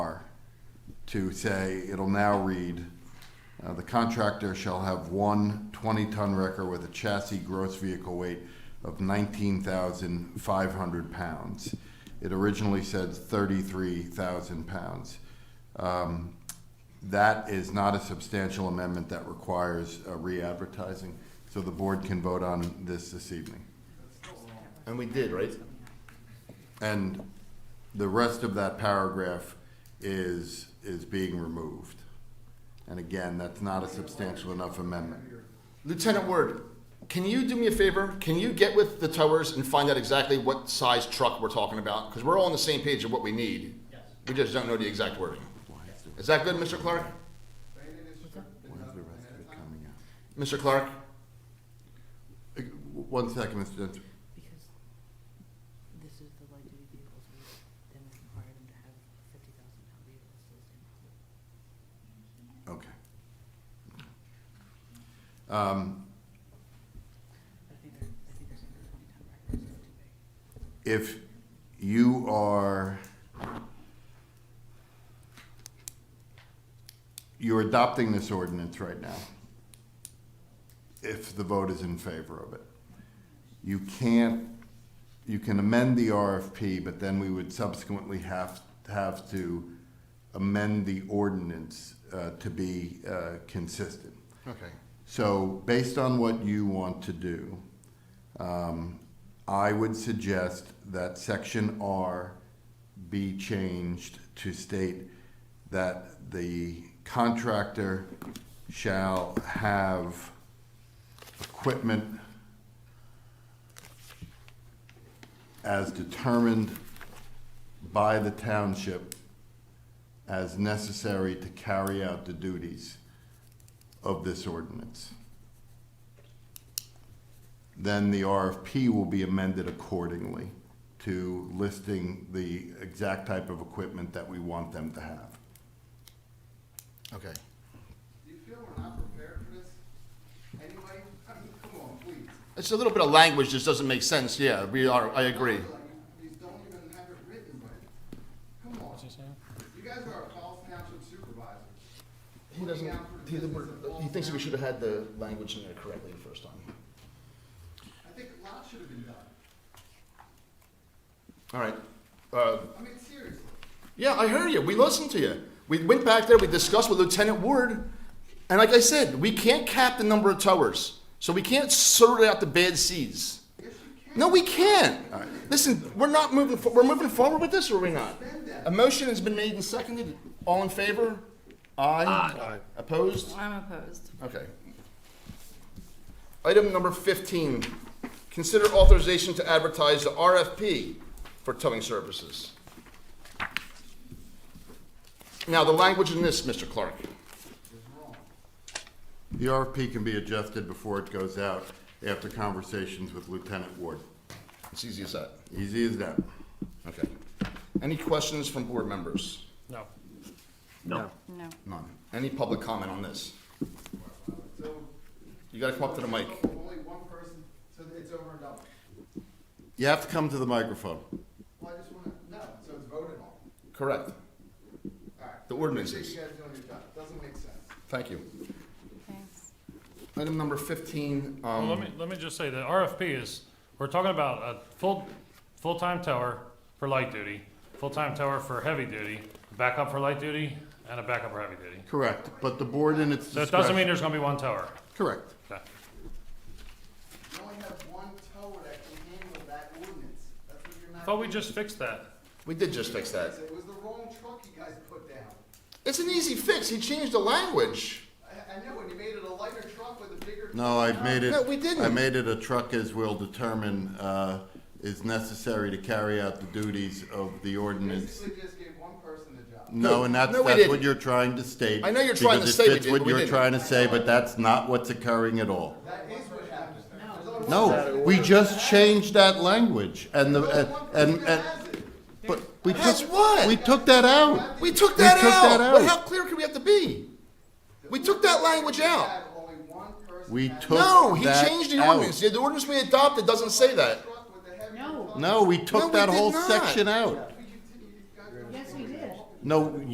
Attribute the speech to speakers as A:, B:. A: to say, it'll now read, uh, the contractor shall have one 20-ton wrecker with a chassis gross vehicle weight of 19,500 pounds. It originally said 33,000 pounds. Um, That is not a substantial amendment that requires uh, re-advertising, so the board can vote on this this evening.
B: And we did, right?
A: And the rest of that paragraph is, is being removed. And again, that's not a substantial enough amendment.
B: Lieutenant Word, can you do me a favor? Can you get with the towers and find out exactly what size truck we're talking about? Because we're all on the same page of what we need. Yes. We just don't know the exact wording. Is that good, Mr. Clark?
A: Why is the rest of it coming out?
B: Mr. Clark?
A: Uh, w- One second, Mr. Dent.
C: Because this is the light duty vehicles, we then we require them to have fifty thousand pound vehicles, so it's impossible.
A: Okay. Um,
C: But I think they're, I think there's under twenty ton records, so too big.
A: If you are, you're adopting this ordinance right now, if the vote is in favor of it. You can't, you can amend the RFP, but then we would subsequently have, have to amend the ordinance uh, to be uh, consistent.
B: Okay.
A: So based on what you want to do, um, I would suggest that section R be changed to state that the contractor shall have equipment as determined by the township as necessary to carry out the duties of this ordinance. Then the RFP will be amended accordingly to listing the exact type of equipment that we want them to have.
B: Okay.
D: Do you feel we're not prepared for this? Anyway, I mean, come on, please.
B: It's a little bit of language that doesn't make sense. Yeah, we are, I agree.
D: You don't even have it written right. Come on. You guys are our Falls Township supervisors.
B: He doesn't, he, he thinks we should have had the language in there correctly the first time.
D: I think a lot should have been done.
B: All right. Uh,
D: I mean, seriously.
B: Yeah, I heard you. We listened to you. We went back there, we discussed with Lieutenant Ward, and like I said, we can't cap the number of towers. So we can't sort out the bad seeds.
D: Yes, you can.
B: No, we can't. Listen, we're not moving, for- we're moving forward with this, or we're not? A motion has been made and seconded. All in favor? Aye. Aye. Opposed?
E: I'm opposed.
B: Okay. Item number fifteen, consider authorization to advertise the RFP for towing services. Now, the language in this, Mr. Clark,
A: The RFP can be adjusted before it goes out after conversations with Lieutenant Ward.
B: it's easy as that.
A: Easy as that.
B: Okay. Any questions from board members?
F: No.
E: No.
B: None. Any public comment on this?
D: So,
B: You gotta come up to the mic.
D: only one person, so it's over and done.
A: You have to come to the microphone.
D: Well, I just wanna, no, so it's voted on.
B: Correct.
D: Alright.
B: The ordinances.
D: You guys doing your job. Doesn't make sense.
B: Thank you.
E: Thanks.
B: Item number fifteen,
F: Well,
B: um.
F: let me, let me just say that RFP is, we're talking about a full, full-time tower for light duty, full-time tower for heavy duty, backup for light duty, and a backup for heavy duty.
A: Correct, but the board in its
F: So it
A: discretion.
F: doesn't mean there's gonna be one tower.
A: Correct.
F: Okay.
D: You only have one tower that can handle that ordinance. That's what you're not.
F: Thought we
D: doing.
F: just fixed that.
B: We did just fix that.
D: It was the wrong truck you guys put down.
B: It's an easy fix. He changed the language.
D: I, I know, and you made it a lighter truck with a bigger.
A: No, I made it.
B: No, we didn't.
A: I made it a truck as will determine, uh, is necessary to carry out the duties of the ordinance.
D: Basically just gave one person the job.
A: No, and that's,
B: No, we
A: that's what
B: didn't.
A: you're trying to state.
B: I know you're trying to
A: because
B: say we
A: it fits
B: did,
A: what
B: but we
A: you're
B: didn't.
A: trying to say, but that's not what's occurring at all.
D: That is what happened. There's only one person.
A: No, we just changed that language and the, and, and- and,
D: Has it?
A: but we took.
B: Has what?
A: We took that out.
B: We took that
A: We took
B: out.
A: that
B: What,
A: out.
B: how clear could we have to be? We took that language out.
D: Had only one person.
A: We
D: had
A: took
B: No, he
A: that
B: changed the
A: out.
B: ordinance. The ordinance we adopted doesn't say that.
D: a truck with a heavier
C: No.
D: truck.
A: No, we
B: No,
A: took
B: we
A: that
B: did
A: whole
B: not.
A: section out.
D: We continued- you guys
C: Yes, we did.
A: No,